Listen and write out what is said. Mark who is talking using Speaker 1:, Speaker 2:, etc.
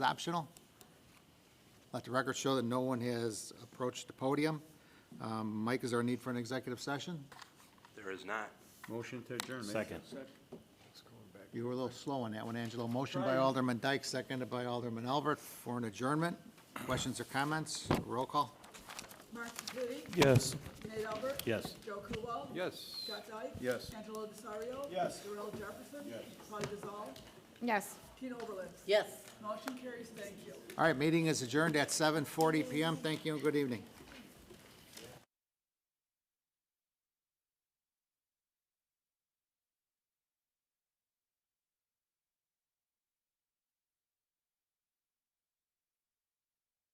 Speaker 1: optional. Let the record show that no one has approached the podium. Um, Mike, is there a need for an executive session?
Speaker 2: There is not.
Speaker 3: Motion to adjourn. Major.
Speaker 4: Second.
Speaker 1: You were a little slow on that one, Angelo. Motion by Alderman Dyke, seconded by Alderman Albert for an adjournment. Questions or comments? Roll call.
Speaker 5: Mark Sepiti,
Speaker 4: Yes.
Speaker 5: Nate Albert.
Speaker 4: Yes.
Speaker 5: Joe Coolwell.
Speaker 3: Yes.
Speaker 5: Scott Dyke.
Speaker 3: Yes.
Speaker 5: Angelo Desario.
Speaker 3: Yes.
Speaker 5: Darrell Jefferson. Yes. Claudia Gazal.
Speaker 6: Yes.
Speaker 5: Tina Oberlin.
Speaker 6: Yes.
Speaker 5: Motion carries. Thank you.
Speaker 1: All right, meeting is adjourned at 7:40 PM. Thank you and good evening.